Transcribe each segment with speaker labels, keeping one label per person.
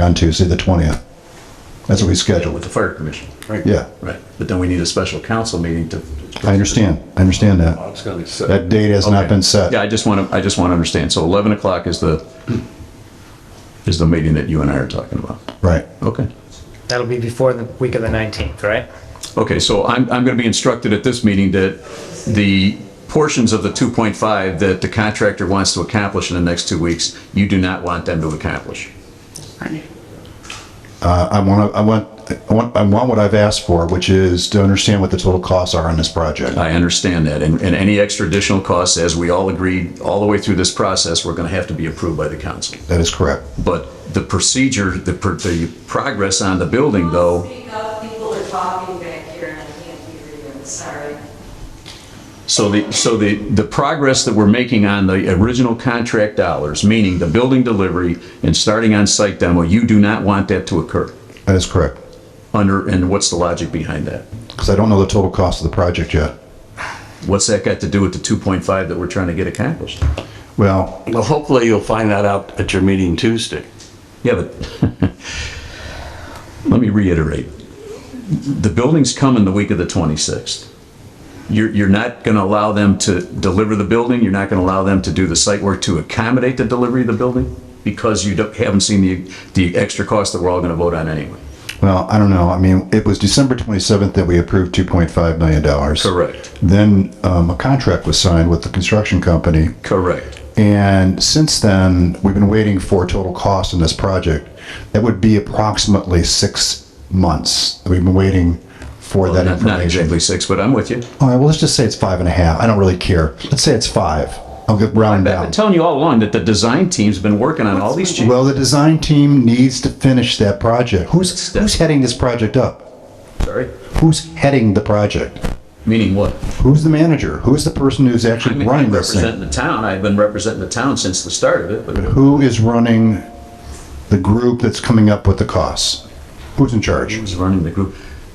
Speaker 1: on Tuesday, the 20th. That's what we scheduled.
Speaker 2: with the fire commission. Right.
Speaker 1: Yeah,
Speaker 2: Right, but then we need a special council meeting to.
Speaker 1: I understand. I understand that.
Speaker 3: It's gonna be set.
Speaker 1: That date has not been set.
Speaker 2: Yeah, I just want to, I just want to understand. So 11 o'clock is the, is the meeting that you and I are talking about.
Speaker 1: Right.
Speaker 2: Okay.
Speaker 4: That'll be before the week of the 19th, right?
Speaker 2: Okay, so I'm, I'm going to be instructed at this meeting that the portions of the 2.5 that the contractor wants to accomplish in the next two weeks, you do not want them to accomplish.
Speaker 1: Uh, I want, I want, I want, I want what I've asked for, which is to understand what the total costs are on this project.
Speaker 2: I understand that, and, and any extra additional costs, as we all agreed, all the way through this process, we're going to have to be approved by the council.
Speaker 1: That is correct.
Speaker 2: But the procedure, the, pr- the progress on the building, though,
Speaker 5: Speak up, people are talking back here and I can't hear you, I'm sorry.
Speaker 2: so the, so the, the progress that we're making on the original contract dollars, meaning the building delivery and starting on-site demo, you do not want that to occur.
Speaker 1: That is correct.
Speaker 2: Under, and what's the logic behind that?
Speaker 1: Because I don't know the total cost of the project yet.
Speaker 2: What's that got to do with the 2.5 that we're trying to get accomplished?
Speaker 1: Well,
Speaker 3: Well, hopefully you'll find that out at your meeting Tuesday.
Speaker 2: Yeah, but let me reiterate. The building's coming the week of the 26th. You're, you're not going to allow them to deliver the building, you're not going to allow them to do the site work to accommodate the delivery of the building because you don't- haven't seen the, the extra cost that we're all going to vote on anyway.
Speaker 1: well, I don't know. I mean, it was December 27th that we approved $2.5 million.
Speaker 2: Correct.
Speaker 1: Then um, a contract was signed with the construction company
Speaker 2: Correct.
Speaker 1: And since then, we've been waiting for total cost on this project. That would be approximately six months. We've been waiting for that
Speaker 2: Not not
Speaker 1: information.
Speaker 2: exactly six, but I'm with you.
Speaker 1: All right, well, let's just say it's five and a half. I don't really care. Let's say it's five. I'll get round
Speaker 2: I've
Speaker 1: down.
Speaker 2: been telling you all along that the design team's been working on all these changes.
Speaker 1: Well, the design team needs to finish that project. Who's, who's heading this project up?
Speaker 2: Sorry.
Speaker 1: Who's heading the project?
Speaker 2: Meaning what?
Speaker 1: Who's the manager? Who's the person who's
Speaker 2: I
Speaker 1: actually
Speaker 2: mean,
Speaker 1: running
Speaker 2: I'm
Speaker 1: this
Speaker 2: representing
Speaker 1: thing?
Speaker 2: the town, I've been representing the town since the start of it, but
Speaker 1: Who is running the group that's coming up with the costs? Who's in charge?
Speaker 2: Who's running the group?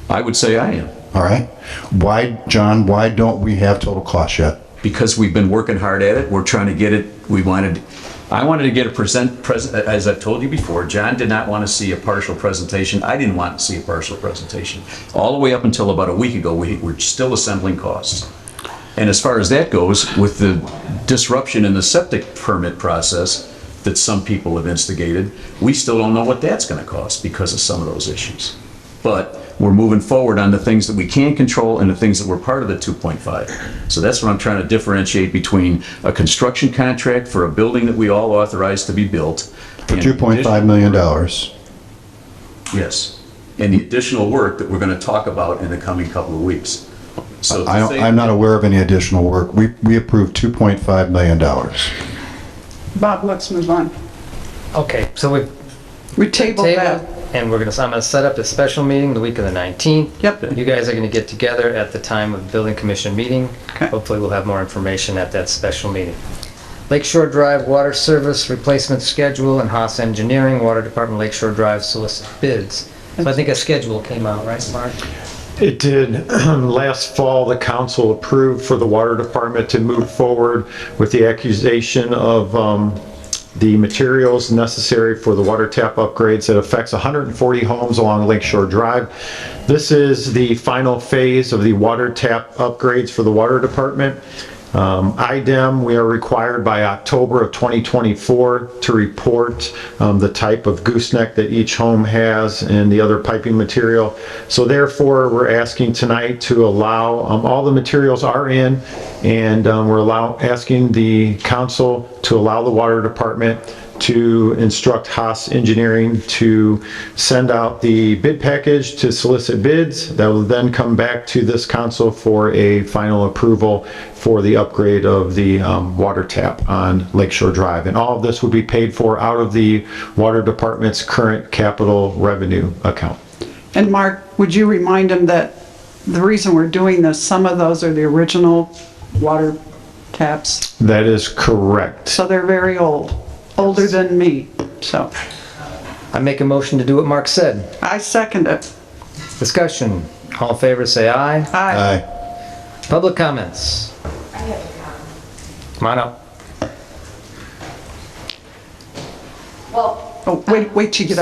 Speaker 2: I would say I am,
Speaker 1: All right. Why, John, why don't we have total cost yet?
Speaker 2: because we've been working hard at it, we're trying to get it, we wanted, I wanted to get a present, pres- as I've told you before, John did not want to see a partial presentation, I didn't want to see a partial presentation. All the way up until about a week ago, we were still assembling costs. And as far as that goes, with the disruption in the septic permit process that some people have instigated, we still don't know what that's gonna cost because of some of those issues. But we're moving forward on the things that we can control and the things that were part of the 2.5. So that's what I'm trying to differentiate between a construction contract for a building that we all authorized to be built.
Speaker 1: For $2.5 million.
Speaker 2: Yes, and the additional work that we're gonna talk about in the coming couple of weeks. So to
Speaker 1: I,
Speaker 2: say-
Speaker 1: don't- I'm not aware of any additional work. We, we approved $2.5 million.
Speaker 6: Bob, let's move on.
Speaker 4: Okay, so we've
Speaker 6: We tabled
Speaker 4: tabled,
Speaker 6: that.
Speaker 4: and we're gonna, I'm gonna set up a special meeting the week of the 19th.
Speaker 6: Yep.
Speaker 4: You guys are gonna get together at the time of the building commission meeting.
Speaker 6: Okay.
Speaker 4: Hopefully, we'll have more information at that special meeting. Lakeshore Drive Water Service Replacement Schedule and Haas Engineering, Water Department Lakeshore Drive solicit bids. So I think a schedule came out, right, Mark?
Speaker 7: It did. Last fall, the council approved for the water department to move forward with the accusation of um, the materials necessary for the water tap upgrades that affects 140 homes along Lakeshore Drive. This is the final phase of the water tap upgrades for the water department. Um, IDEM, we are required by October of 2024 to report um, the type of gooseneck that each home has and the other piping material. So therefore, we're asking tonight to allow, um, all the materials are in, and um, we're allow, asking the council to allow the water department to instruct Haas Engineering to send out the bid package to solicit bids. That will then come back to this council for a final approval for the upgrade of the um, water tap on Lakeshore Drive. And all of this would be paid for out of the water department's current capital revenue account.
Speaker 6: And Mark, would you remind him that the reason we're doing this, some of those are the original water taps,
Speaker 7: That is correct.
Speaker 6: so they're very old, older than me. So
Speaker 4: I make a motion to do what Mark said.
Speaker 6: I second it.
Speaker 4: Discussion. All in favor, say aye.
Speaker 6: Aye.
Speaker 1: Aye.
Speaker 4: Public comments. Come on up.
Speaker 5: Well,
Speaker 6: Oh, wait, wait till you get up.